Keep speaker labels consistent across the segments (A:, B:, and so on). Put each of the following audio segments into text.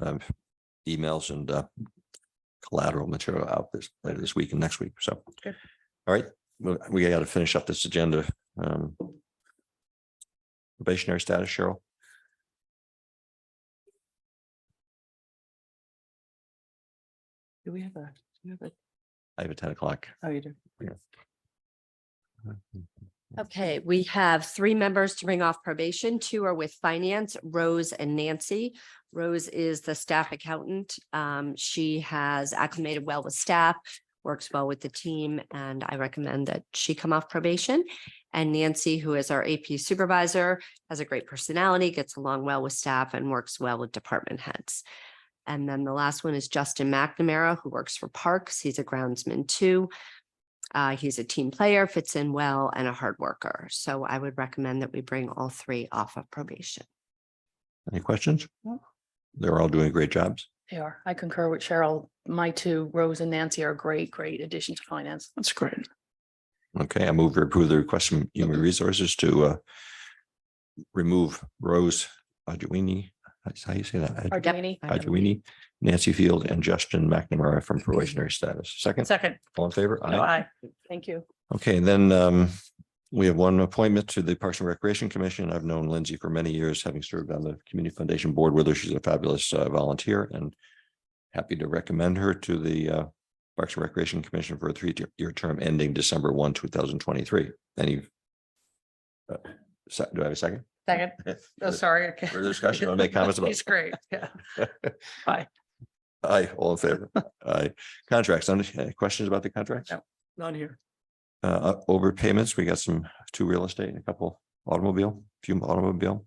A: um, emails and uh, collateral material out this later this week and next week. So, all
B: Good.
A: right, we- we got to finish up this agenda. Um, Probationary status, Cheryl.
B: Do we have a, do you have a,
A: I have a ten o'clock.
B: oh, you do.
C: Okay, we have three members to bring off probation. Two are with finance, Rose and Nancy. Rose is the staff accountant. Um, she has acclimated well with staff, works well with the team, and I recommend that she come off probation. And Nancy, who is our AP supervisor, has a great personality, gets along well with staff and works well with department heads. And then the last one is Justin McNamara, who works for Parks. He's a groundsman too. Uh, he's a team player, fits in well, and a hard worker. So I would recommend that we bring all three off of probation.
A: Any questions?
B: No.
A: They're all doing great jobs.
B: They are. I concur with Cheryl. My two, Rose and Nancy are great, great addition to finance. That's great.
A: Okay, I move to approve the request from Human Resources to uh, remove Rose Adjuini. That's how you say that. Ad-
B: Arduini.
A: Adjuini, Nancy Field and Justin McNamara from probationary status. Second,
B: Second.
A: all in favor?
B: No, aye. Thank you.
A: Okay, and then um, we have one appointment to the Parks and Recreation Commission. I've known Lindsay for many years, having served on the Community Foundation Board with her. She's a fabulous uh, volunteer and happy to recommend her to the uh, Parks and Recreation Commission for a three-year term ending December one, two thousand twenty-three. Any uh, se- do I have a second?
B: Second. Oh, sorry.
A: Further discussion? Wanna make comments about-
B: It's great. Yeah.
A: Aye, all in favor. Aye. Contracts, any questions about the contracts?
B: No. Not here.
A: Uh, overpayments, we got some, two real estate and a couple automobile, few automobile.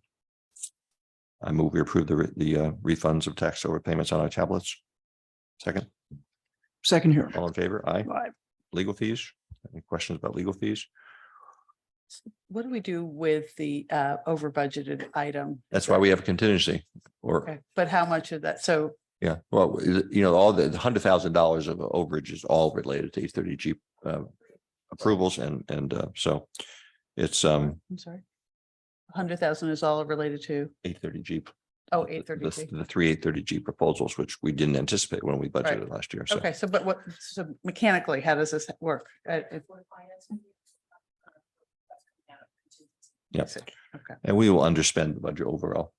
A: I move we approve the, re- the uh, refunds of tax overpayments on our tablets. Second,
B: Second here.
A: all in favor? Aye.
B: Aye.
A: Legal fees? Any questions about legal fees?
B: What do we do with the uh over budgeted item?
A: That's why we have a contingency or,
B: Okay, But how much of that? So
A: yeah, well, you know, all the hundred thousand dollars of overage is all related to E thirty G uh, approvals and, and uh, so it's um
B: I'm sorry. Hundred thousand is all related to,
A: eight thirty G
B: oh,
A: the-
B: eight
A: the-
B: thirty.
A: The three eight thirty G proposals, which we didn't anticipate when we budgeted last year. So
B: Okay, so but what, so mechanically, how does this work? Uh, it-
A: Yep.
B: Is it- Okay,
A: and we will underspend the budget overall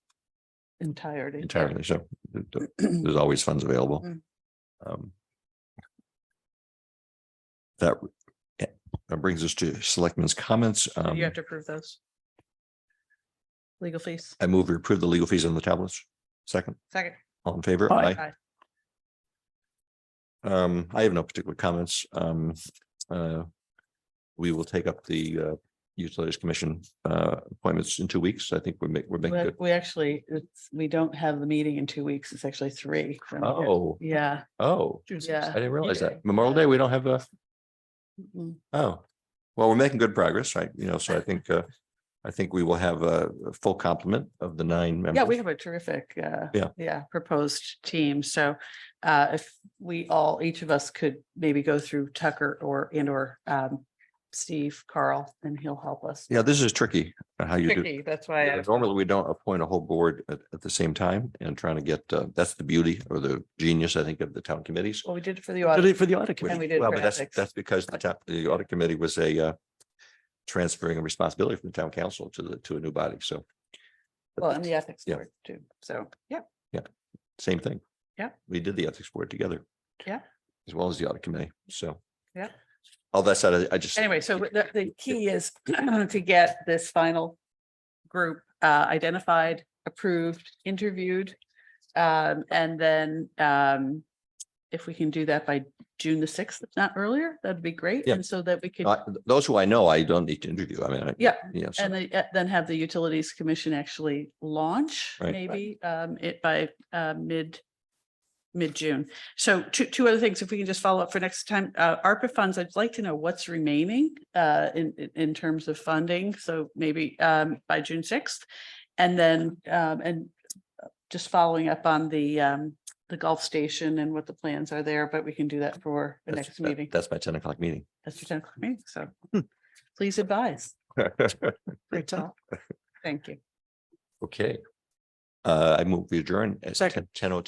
B: entirety.
A: entirely. Um, So th- th-
B: Mm-hmm.
A: there's always funds available.
B: Mm.
A: Um, That eh, that brings us to selectmen's comments.
B: So
A: Um,
B: You have to approve those. Legal fees,
A: I move to approve the legal fees on the tablets. Second,
B: second.
A: all in favor? Aye.
B: Aye.
A: Um, I have no particular comments. Um, uh, we will take up the uh, Utilities Commission uh, appointments in two weeks. I think we're making, we're making
B: We
A: good.
B: we actually, it's, we don't have the meeting in two weeks. It's actually three. from here.
A: Oh,
B: Yeah.
A: oh, I
B: Yeah.
A: didn't realize
B: Yeah.
A: that. Memorial Day, we don't have a,
B: Mm-mm.
A: oh. Well, we're making good progress, right? You know, so I think, uh, I think we will have a a full complement of the nine members.
B: Yeah, we have a terrific, uh,
A: Yeah.
B: yeah, proposed team. So uh, if we all, each of us could maybe go through Tucker or and or um, Steve Carl, and he'll help us.
A: Yeah, this is tricky, uh, how you do.
B: Tricky, Oh, that's why.
A: Yeah,
B: I-
A: Normally, we don't appoint a whole board at, at the same time and trying to get, uh, that's the beauty or the genius, I think, of the town committees.
B: Well, we did it for the
A: Did
B: audit.
A: it For the audit
B: And we
A: committee.
B: did
A: Well,
B: for
A: but that's,
B: ethics.
A: that's because the top, the audit committee was a, uh, transferring a responsibility from the town council to the, to a new body. So
B: Well, and the ethics
A: Yeah.
B: board too. So, yeah,
A: same thing.
B: Yeah.
A: We did the ethics board together.
B: Yeah.
A: As well as the audit committee. So.
B: Yeah.
A: All that said, I- I just.
B: anyway, so the, the key is to get this final group uh, identified, approved, interviewed. Um, and then um, if we can do that by June the sixth, if not earlier, that'd be great.
A: Yeah. Oh,
B: And so that we could.
A: I- Those who I know, I don't need to interview. I mean. I-
B: Yeah,
A: Yeah. so-
B: And they- uh, then have the Utilities Commission actually launch
A: Right. Right.
B: maybe um it by uh mid. Mid-June. So two two other things, if we can just follow up for next time, uh ARPA funds, I'd like to know what's remaining uh in in in terms of funding, so maybe um by June sixth. And then um and just following up on the um the Gulf Station and what the plans are there, but we can do that for the
A: that's-
B: next
A: that- Hmm.
B: meeting.
A: That's my ten o'clock meeting.
B: That's your time for me, so please advise. Great job. Thank you.
A: Okay. Uh, I move we adjourn at
B: Second.
A: ten oh